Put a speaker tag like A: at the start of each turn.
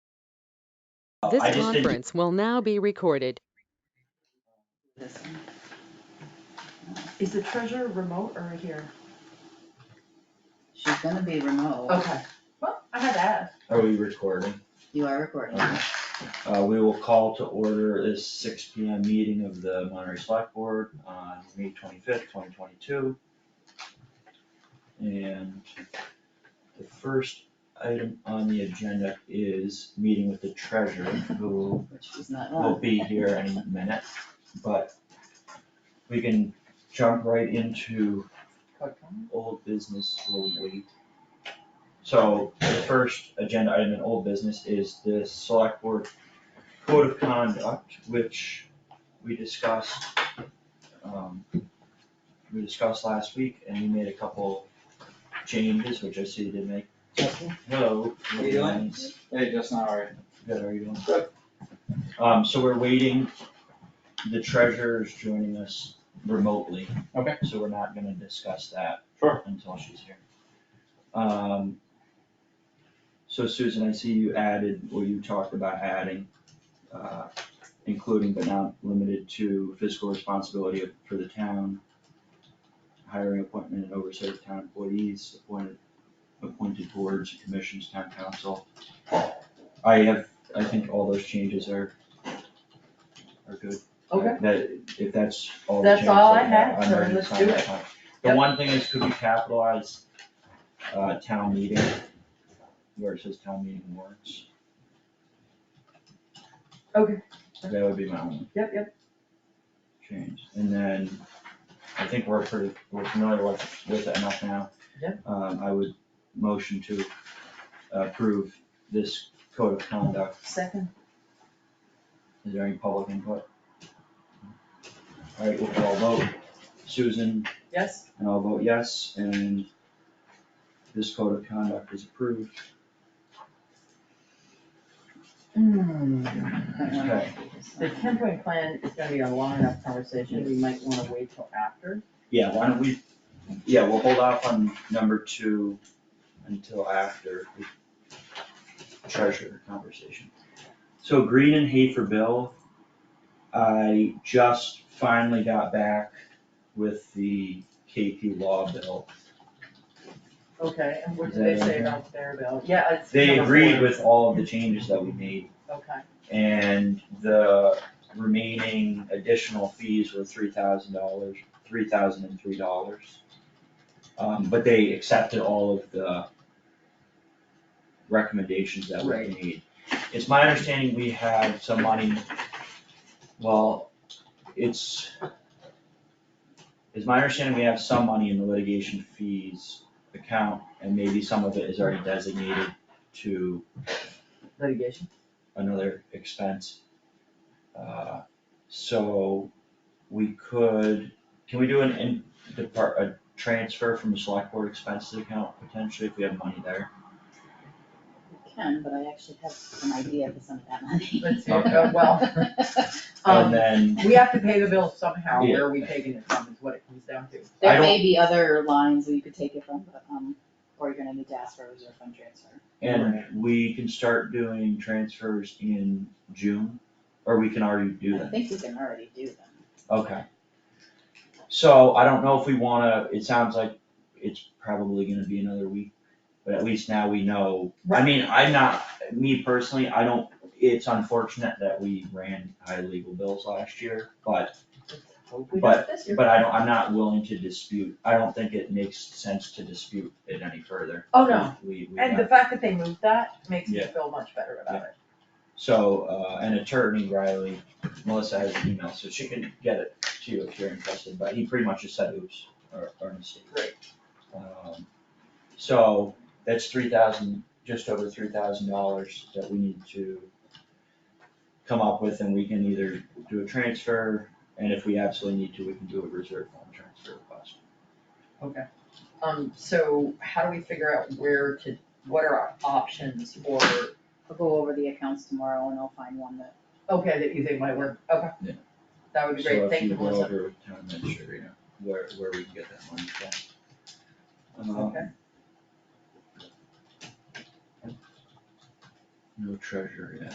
A: This
B: Uh, I just think-
A: conference will now be recorded.
C: This one. Is the treasurer remote or here?
D: She's gonna be remote,
C: Okay. Well, I had to ask.
B: Are we recording?
D: you are recording.
B: Okay. Uh, we will call to order this six P M meeting of the Monterey Select Board on May twenty-fifth, twenty twenty-two. And the first item on the agenda is meeting with the treasurer, who
D: Which was not
B: will
D: on.
B: be here any minute, but we can jump right into old business will wait. So the first agenda item in old business is the select board code of conduct, which we discussed. um, We discussed last week and we made a couple changes, which I see you did make. Hello.
E: How you doing? Hey, Justin, how are
B: Good, how are you doing?
E: Good.
B: Um, so we're waiting, the treasurer's joining us remotely.
E: Okay.
B: So we're not gonna discuss that.
E: Sure.
B: Until she's here. Um, so Susan, I see you added, or you talked about adding, uh, including but not limited to fiscal responsibility of- for the town, hiring, appointment, and oversight of town employees, appointed, appointed boards, commissions, town council. I have, I think all those changes are, are good.
C: Okay.
B: That, if that's all the
C: That's
B: changes.
C: all I
B: that
C: had,
B: I'm
C: so
B: ready to
C: let's
B: sign
C: do
B: that
C: it.
B: one. The
C: Yep.
B: one thing is, could we capitalize, uh, town meeting, where it says town meeting warrants?
C: Okay.
B: That would be my only
C: Yep, yep.
B: change, and then I think we're pretty, we're familiar with, with it enough now.
C: Yeah.
B: Um, I would motion to approve this code of conduct,
C: Second.
B: is there any public input? Alright, we'll all vote, Susan,
C: Yes?
B: and I'll vote yes, and this code of conduct is approved, okay,
C: Hmm. The ten point plan is gonna be a long enough conversation. We might wanna wait till after.
B: yeah, why don't we, yeah, we'll hold off on number two until after the treasure conversation. So Green and Hafer Bill, I just finally got back with the KP Law bill.
C: Okay, and what
B: Is
C: did they
B: that
C: say
B: okay?
C: about their bill? Yeah, it's.
B: They
C: number
B: agreed
C: four.
B: with all of the changes that we made
C: Okay,
B: and the remaining additional fees were three thousand dollars, three thousand and three dollars. Um, but they accepted all of the recommendations that we
C: Right.
B: made. It's my understanding we have some money, well, it's, it's my understanding we have some money in the litigation fees account, and maybe some of it is already designated to
C: litigation.
B: another expense. Uh, So we could, can we do an in depart, a transfer from the select board expenses account potentially if we have money there?
D: You Can, but I actually have an idea for some of that money.
C: Let's see,
B: Okay.
C: uh, well.
B: And
C: Um,
B: then,
C: we have to pay the bill somehow. Where are we taking it from is what it comes down to.
B: I
D: There
B: don't-
D: may be other lines where you could take it from, but, um, or you're gonna need to ask for a reserve fund transfer.
B: and we can start doing transfers in June, or we can already do
D: I
B: that,
D: think we can already do them.
B: okay. So I don't know if we wanna, it sounds like it's probably gonna be another week, but at least now we know I mean, I'm not, me personally, I don't, it's unfortunate that we ran high legal bills last year, but,
C: Let's hope we do
B: But-
C: it this year.
B: but I don't, I'm not willing to dispute, I don't think it makes sense to dispute it any further.
C: Oh, no.
B: We, we,
C: And
B: got-
C: the fact that they moved that makes me
B: Yeah.
C: feel much better about it.
B: so, uh, an attorney, Riley, Melissa has an email, so she can get it to you if you're interested, but he pretty much just said oops, or, or mistake.
C: Right.
B: Um, So, that's three thousand, just over three thousand dollars that we need to come up with, and we can either do a transfer, and if we absolutely need to, we can do a reserve fund transfer request.
C: Um, so how do we figure out where to, what are our options for,
D: We'll go over the accounts tomorrow and I'll find one that,
C: okay, that you think might work, okay?
B: Yeah.
C: That would be great, thank you,
B: So if you go
C: Melissa.
B: over with town administrator, where, where we can get that money from. Um,
C: Okay.
B: Um, No treasure yet.